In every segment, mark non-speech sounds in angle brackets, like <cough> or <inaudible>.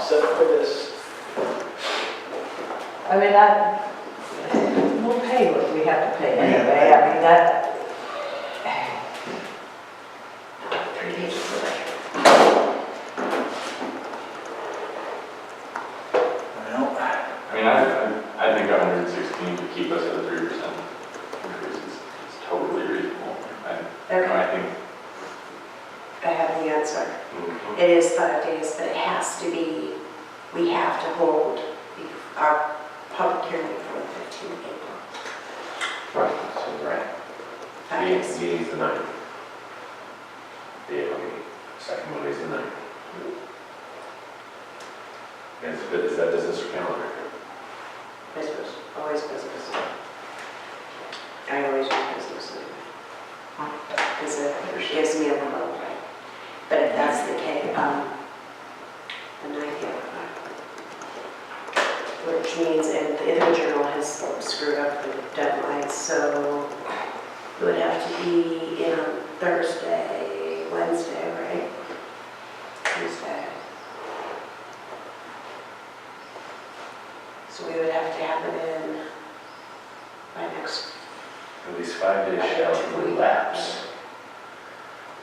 set for this. I mean, that, we'll pay what we have to pay anyway, I mean, that, Well, I mean, I, I I think hundred and sixteen to keep us at a three percent increase is is totally reasonable. I, Okay, I think, I have the answer. mhm, It is five days, but it has to be, we have to hold the- our public hearing for the 15th of April. Right, so Right. Five meeting's, days. meeting's the ninth. The April meeting, second Monday's the ninth. And it's- is that business or calendar? Business, always business. I always do business. Because it gives me a little break. But if that's the case, um, then I get Which means, and the Ithel Journal has screwed up the deadline, so it would have to be in on Thursday, Wednesday, right? Tuesday. So we would have to have it in by next. At least five days shall elapse.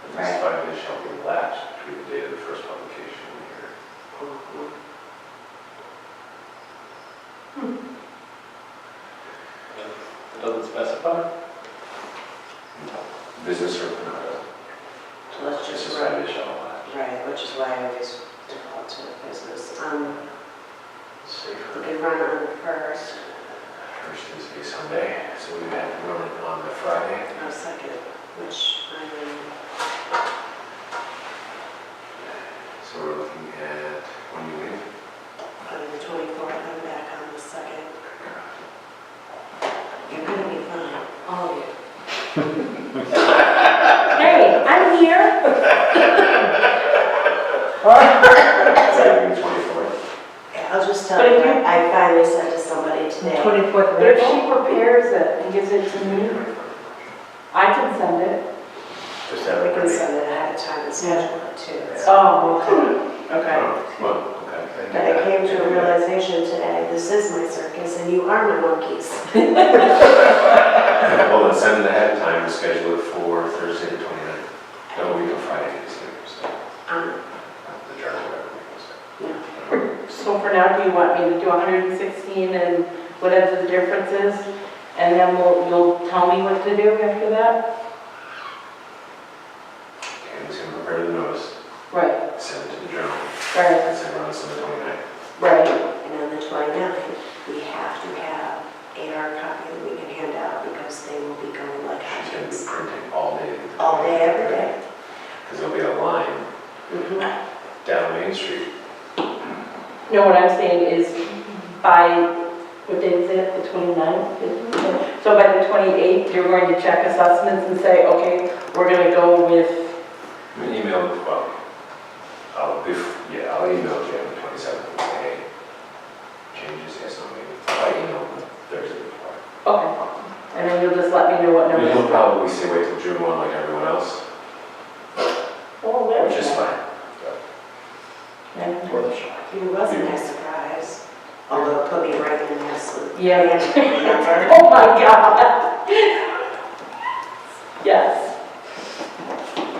At least five days shall elapse between the date of the first publication and the hearing. it doesn't specify. Business or not, So let's just just as run, five days shall elapse. right, which is why I always default to business. Um, we Safer. could run on the first, First is a Sunday, so we had to run it on the Friday. or second, which I mean, So we're looking at, when you leave? on the twenty-fourth, I'm back on the second. You're gonna be fine, all of you. hey, I'm here. Leaving the 24th. I'll just tell But you, if you- I finally said to somebody today, Twenty-fourth of But if she April. prepares it and gives it to me, Mm-hmm. I can send it. Just we have it can ready. send it ahead of time and schedule it too. It's- Oh, Oh, okay. Well, okay. But I came to a <laughs> realization today, this is my circus and you are my monkeys. Well, then send it ahead of time and schedule it for Thursday the 29th. That will be on Friday, this week, so uh, Um, the journal, whatever it is. So for now, do you want me to do 116 and whatever the difference is? And then we'll, you'll tell me what to do after that? Okay, he's gonna prepare the notice, Right, send it to the journal, right, and send it on Sunday the 29th. right. And on the 29th, we have to have a hard copy that we can hand out because they will be going like She's gonna be hotcakes. printing all day. the All day, 29th. every day. Because there'll be a line Mhm. down Main Street. No, what I'm saying is by, what day is it, the 29th? So by the 28th, you're going to check assessments and say, okay, we're going to go with, I'm gonna email, well, I'll, bef- yeah, I'll email Jim the 27th and say, hey, changes, yes, I'll make it. I'll email him Thursday before. okay. And then you'll just let me know what I mean, numbers. he'll probably say wait till June 1 like everyone else, Oh, there which we is go. fine. Yeah. It wasn't a surprise, although it put me right in this. Yeah. Remember? Oh my God. Yes.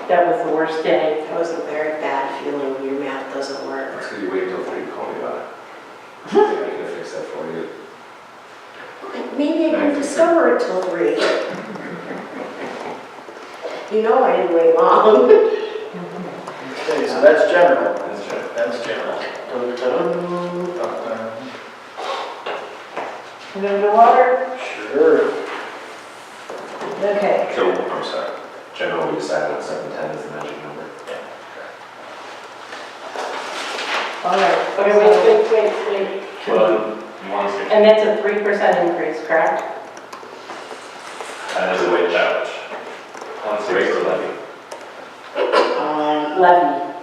That was the worst day. That was a very bad feeling, your math doesn't work. That's because you waited till 3 to call me about it. Yeah, I can fix that for you. Maybe I can discover it till three. You know I didn't wait long. <laughs> Okay, so that's general. That's true. That's general. Dun, dun, dun. You gonna do water? Sure. Okay. So, I'm sorry, generally we decided on 710 is the magic number. All right. Okay, wait, wait, wait, wait. Well, you want us to, And that's a three percent increase, correct? that is a way out. One Rate or sixteen. uh, levy? Um, Levy.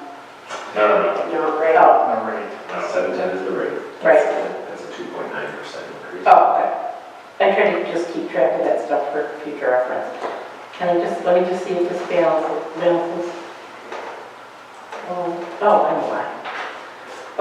No, no, no, Uh, No, right. Oh, all right. no. 710 is the rate. right. That's a 2.9% increase. Oh, okay. I try to just keep track of that stuff for future reference. Can I just, let me just see if this balances, balances. Oh, oh, I know why.